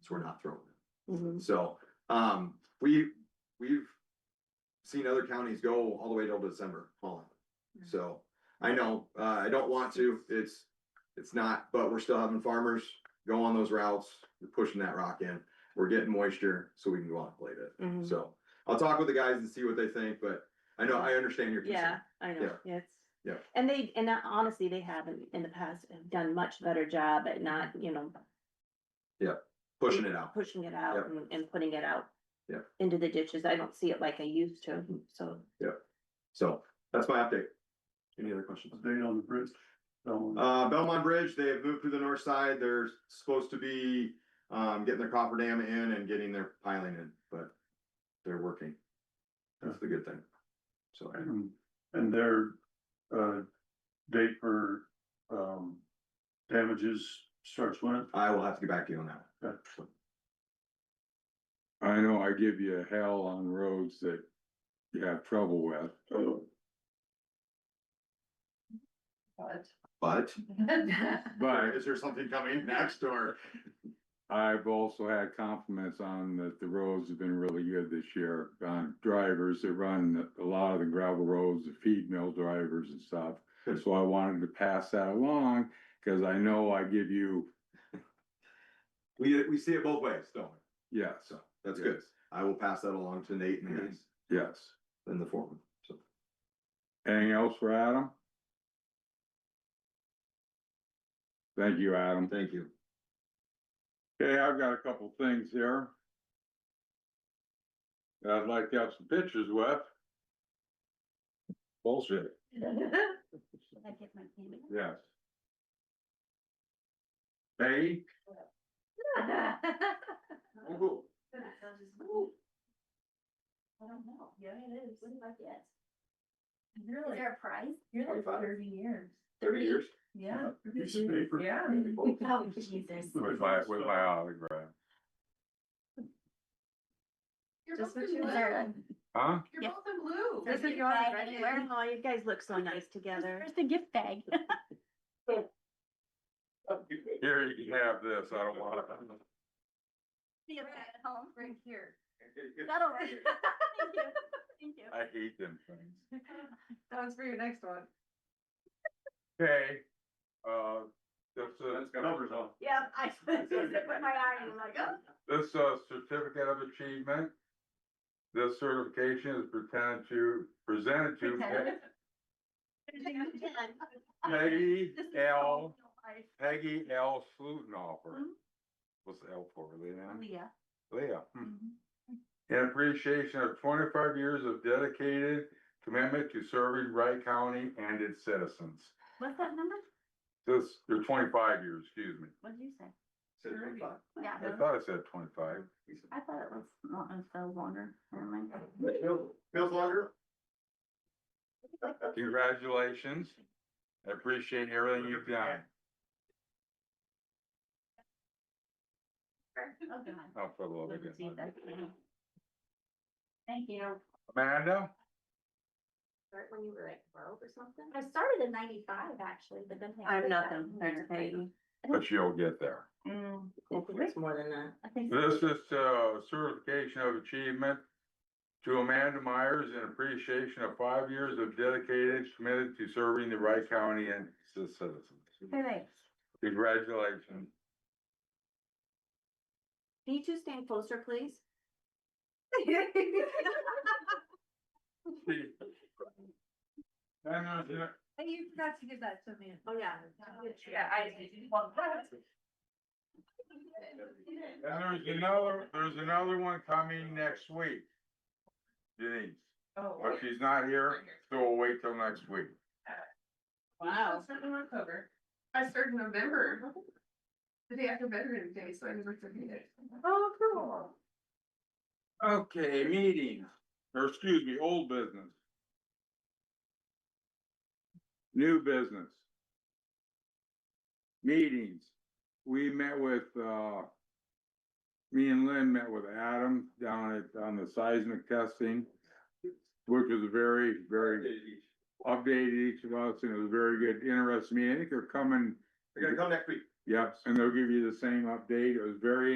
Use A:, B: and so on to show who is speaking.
A: so we're not throwing them.
B: Mhm.
A: So, um, we, we've seen other counties go all the way till December hauling. So, I know, uh, I don't want to, it's, it's not, but we're still having farmers go on those routes, we're pushing that rock in. We're getting moisture, so we can go out and blade it.
B: Mhm.
A: So, I'll talk with the guys and see what they think, but I know, I understand your
B: Yeah,
A: concern.
B: I know,
A: Yeah.
B: yes.
A: Yeah.
B: And they, and that- honestly, they haven't in the past have done much better job at not, you know,
A: Mm-hmm. Pushing it out.
B: pushing it
A: Yeah.
B: out and, and putting it out.
A: Yeah.
B: Into the ditches. I don't see it like I used to, so.
A: So that's my update. Any other questions?
C: Update on the bridge. So,
A: Uh, Belmont Bridge, they have moved to the north side. They're supposed to be, um, getting their coffer dam in and getting their piling in, but they're working. That's the good thing. So,
C: and- And their, uh, date for, um, damages starts when?
A: I will have to get back to you on that.
D: I know I give you hell on roads that you have trouble with.
A: But
D: But
A: is there something coming next or?
D: I've also had compliments on that the roads have been really good this year. On drivers that run a lot of the gravel roads, the feed mill drivers and stuff.
A: Good.
D: So I wanted to pass that along, cause I know I give you,
A: We, we see it both ways, don't we?
D: yes,
A: So that's good. I will pass that along to Nate and the guys
D: yes.
A: in the forum. So,
D: Anything else for Adam? Thank you, Adam.
A: thank you.
D: Okay, I've got a couple things here. that I'd like to have some pictures with. Bullshit, yes. Hey,
E: I don't know. Yeah, it is. What about that? Is there a prize? You're like thirty years.
A: Thirty years.
E: Yeah.
C: Piece of paper.
E: Yeah. Oh, Jesus.
D: with my, with my autograph,
E: Just what you learn.
D: huh?
B: Yeah.
F: blue.
E: This is yours, right?
B: Oh, you guys look so nice together.
E: Where's the gift bag?
D: Here, you can have this, I don't want it.
E: See it at home.
F: Right here.
E: That'll work. Thank you. Thank you.
D: I hate them things.
F: That was for your next one.
D: Okay, uh, that's a.
C: That's covers all.
B: Yeah, I put my eye in like, oh.
D: This uh certificate of achievement. This certification is pretended to, presented to
E: Pretended.
D: Peggy
E: This is
D: L,
E: all real life.
D: Peggy L Slutenoffer. What's the L for, Leanne?
E: Leah.
D: Leah. hmm. In appreciation of twenty-five years of dedicated commitment to serving Wright County and its citizens.
E: What's that number?
D: This, or twenty-five years, excuse me.
E: What did you say? Yeah,
D: I thought I said twenty-five.
E: I thought it was, not it was longer. Never mind.
A: Feels longer?
D: Congratulations. I appreciate everything you've done.
E: Oh, God.
D: I'll put a little bit.
E: Let's see if that's- Thank you.
D: Amanda?
F: Start when you were like twelve or something?
E: I started in ninety-five actually, but then. I
B: I'm
E: quit that
B: nothing,
E: one
B: there's
E: year.
B: Peggy.
D: But you'll get there.
E: Mm,
B: It's more than that.
E: I think. so.
D: This is uh certification of achievement to Amanda Myers in appreciation of five years of dedicated, committed to serving the Wright County and its citizens.
E: Thanks.
D: Congratulations.
B: Can you two stand closer, please?
D: And, uh, yeah,
F: And you forgot to give that to me.
B: Oh, yeah.
F: Yeah, I did. Well, that's-
D: and there's another, there's another one coming next week. Denise,
F: Oh.
D: but she's not here, so we'll wait till next week.
F: I started in October. I started in November. The day after Veterans Day, so I never forget it. Oh, cool.
D: Okay, meeting, or excuse me, old business. New business. Meetings, we met with, uh. Me and Lynn met with Adam down at, on the seismic testing. Which was very, very updated each of us, and it was a very good, interesting meeting, I think they're coming,
A: They're gonna come next week.
D: yep, and they'll give you the same update, it was very